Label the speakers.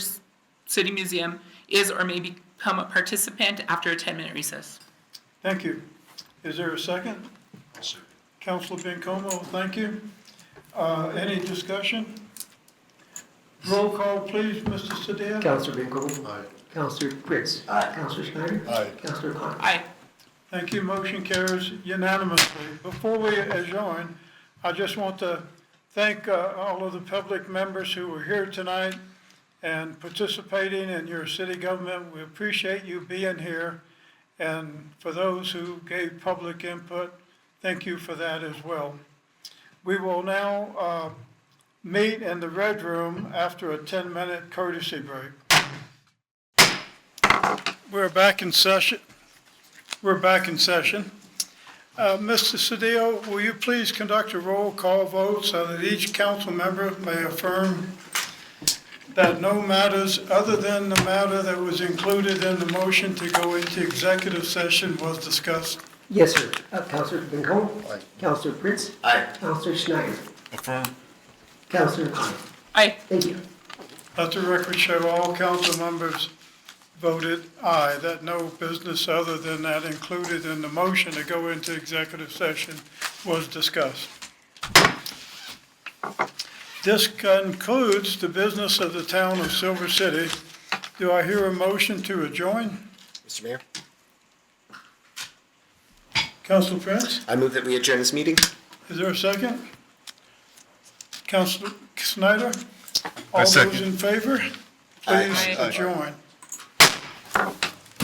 Speaker 1: City Museum is or may become a participant after a 10-minute recess.
Speaker 2: Thank you. Is there a second? Counselor Bencomo, thank you. Uh, Any discussion? Roll call, please, Mr. Padilla.
Speaker 3: Counselor Bingo. Aye. Counselor Prince. Aye. Counselor Schneider. Aye. Counselor Klein.
Speaker 1: Aye.
Speaker 2: Thank you, motion carries unanimously. Before we adjourn, I just want to thank uh, all of the public members who were here tonight and participating in your city government. We appreciate you being here, and for those who gave public input, thank you for that as well. We will now uh, meet in the red room after a 10-minute courtesy break. We're back in session. We're back in session. Uh, Mr. Cedillo, will you please conduct a roll call vote so that each council member may affirm that no matters other than the matter that was included in the motion to go into executive session was discussed?
Speaker 3: Yes, sir. Uh, Counselor Bingo. Aye. Counselor Prince. Aye. Counselor Schneider.
Speaker 4: Affirm.
Speaker 3: Counselor Klein.
Speaker 1: Aye.
Speaker 3: Thank you.
Speaker 2: Let the record show all council members voted aye, that no business other than that included in the motion to go into executive session was discussed. This concludes the business of the town of Silver City. Do I hear a motion to adjourn?
Speaker 5: Mr. Mayor,
Speaker 2: Council Prince,
Speaker 5: I move that we adjourn this meeting.
Speaker 2: is there a second? Council Snyder?
Speaker 4: I
Speaker 2: All those
Speaker 4: second.
Speaker 2: in favor,
Speaker 5: Aye.
Speaker 2: please
Speaker 1: Aye.
Speaker 2: adjourn.